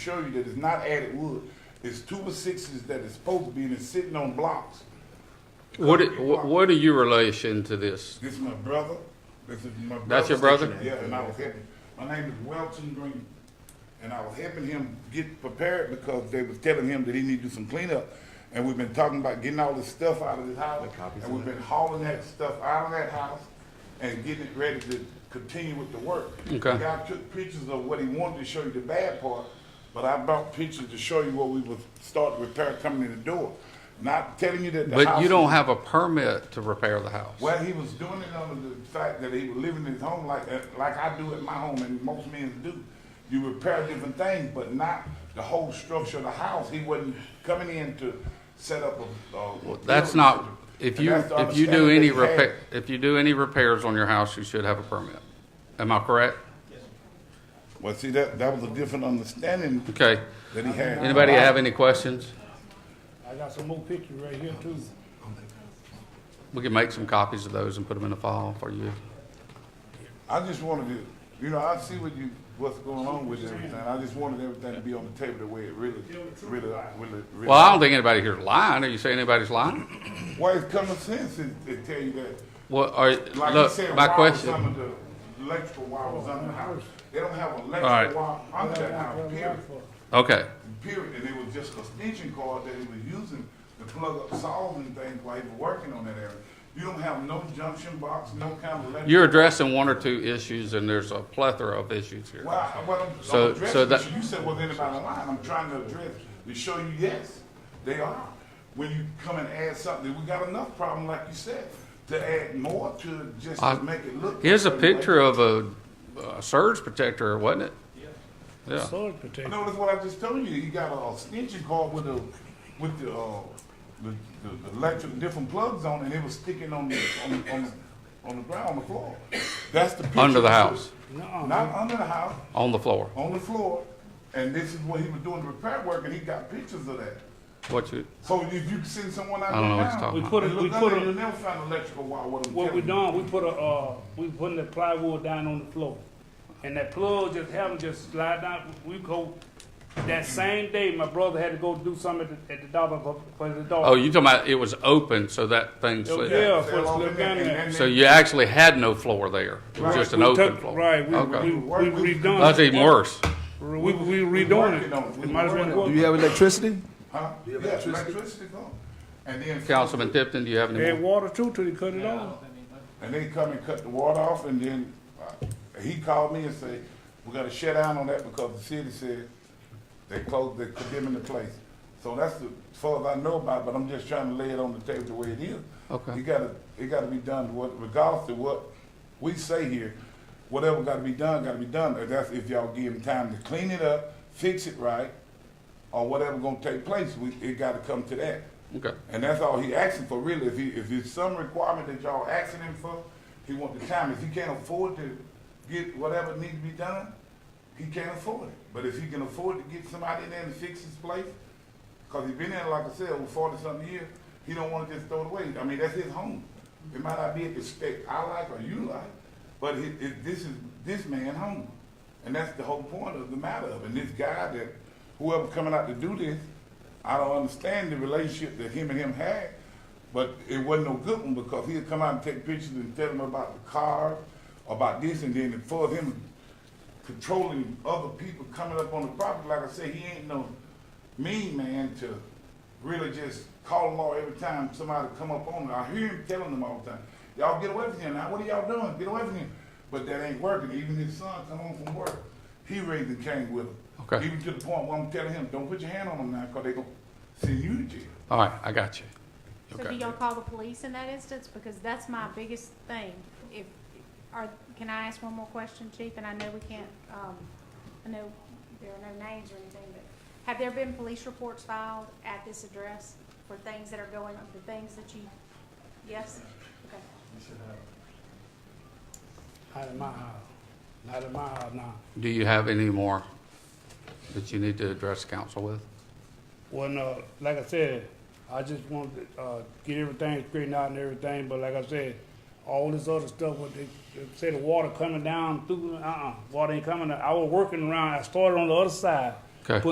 show you that it's not added wood. It's two by sixes that is supposed to be and it's sitting on blocks. What, what what are your relation to this? This is my brother. This is my brother. That's your brother? Yeah, and I was helping. My name is Welton Green. And I was helping him get prepared because they was telling him that he need to do some cleanup. And we've been talking about getting all this stuff out of this house. And we've been hauling that stuff out of that house and getting it ready to continue with the work. Okay. The guy took pictures of what he wanted to show you the bad part, but I brought pictures to show you what we was starting to repair coming in the door. Not telling you that the house. But you is- don't have a permit to repair the house. well, he was doing it under the fact that he was living in his home like uh, like I do at my home, and most men do. You repair different things, but not the whole structure of the house. He wasn't coming in to set up a. a Well, That's not, if And you, that's the if you do any understanding that he had. repair, if you do any repairs on your house, you should have a permit. Am I correct? Well, see that that was a different understanding Okay. that he had. Anybody have any questions? I got some more pictures right here too. We can make some copies of those and put them in a file for you. I just wanted to, you know, I see what you what's going on with everything. I just wanted everything to be on the table the way it really, really, really. really Well, I don't think anybody here is lying. Are you saying anybody's lying? Well, it's common sense. It, it tell you that. Well, are, Like you look, said, my wire question. was under the electrical wire was under the house. They don't have electrical right. wire under that house, period. Okay, Period. And it was just a extension cord that he was using to plug up saws and things while he was working on that area. You don't have no junction box, no kind of electrical. you're addressing one or two issues and there's a plethora of issues here. Well, I- well, I'm- So- I'm so addressing, that- this. you said, was anybody lying? I'm trying to address, to show you, yes, they are. When you come and add something, we got enough problem, like you said, to add more to it just I- to make it look. Here's a certain way. picture of a, a surge protector, wasn't it? Yeah. Soil protection. No, that's what I just told you. You got a extension cord with the, with the, uh, the, the the electric, different plugs on, and it was sticking on the, on, the- on, the- on the ground, on the floor. That's the picture. Under the that house. shows- Nuh-uh, Not under the house, on the floor. on the floor, and this is what he was doing the repair work, and he got pictures of that. What you, So if you send someone out I don't know what there now, you're talking and We about. put, a- we look put, under, you'll a- never find electrical wire, what I'm what telling we you. done, we put a, uh, we putting the plywood down on the floor. And that plug just happened, just slide down, we go, that same day, my brother had to go do something at the, at the dollar for- for the Oh, dog. you talking about it was open, so that thing slid. Oh, Yeah, it's for us to look down and there. then So they- you actually had no floor there. It was Right. just an We open took- floor. Right, we, we, Okay. we That's redone, even worse. we, we We redoing working on it. We It might as working well on Do go. you have electricity? Huh? Yeah, electricity come. And then. Councilman Tipton, do you have any Add more? water too till they cut it off. And they come and cut the water off, and then uh, he called me and say, "We got to shut down on that because the city said they closed, they're condemning the place." So that's the as far as I know about. it, But I'm just trying to lay it on the table the way it is. Okay. It got to it got to be done. What regardless of what we say here, whatever got to be done, got to be done. And That's if y'all give them time to clean it up, fix it right, or whatever gonna take place. We, it got to come to that. Okay. And that's all he asking for, really. If he, if it's some requirement that y'all asking him for, he want the time. If he can't afford to get whatever needs to be done, he can't afford it. But if he can afford to get somebody in there and fix his place, cause he been there, like I said, over forty something years, he don't wanna just throw it away. I mean, that's his home. It might not be at the spec I like or you like, but it, it, this is this man's home. And that's the whole point of the matter of it. And this guy that, whoever coming out to do this, I don't understand the relationship that him and him had, but it wasn't no good one because he'd come out and take pictures and tell them about the car, about this and then for him controlling other people coming up on the property, like I say, he ain't no mean man to really just call them all every time somebody come up on him. I hear him telling them all the time, y'all get away from here now, what are y'all doing? Get away from here. But that ain't working. Even his son come home from work, he raised the cane with him. Okay. Even to the point where I'm telling him, don't put your hand on them now, cause they gonna send you to jail. All right, I got you. So do Okay. y'all call the police in that instance? Because that's my biggest thing. If, are, can I ask one more question, Chief? And I know we can't, um, I know there are no names or anything, but have there been police reports filed at this address for things that are going, the things that you, yes? Okay. Not in my house, not in my house now. Do you have any more that you need to address council with? Well, no, uh, like I said, I just wanted to uh, get everything straightened out and everything, but like I said, all this other stuff with the, they say the water coming down through, uh-uh, water ain't coming. out. I was working around, I started on the other side. Okay. putting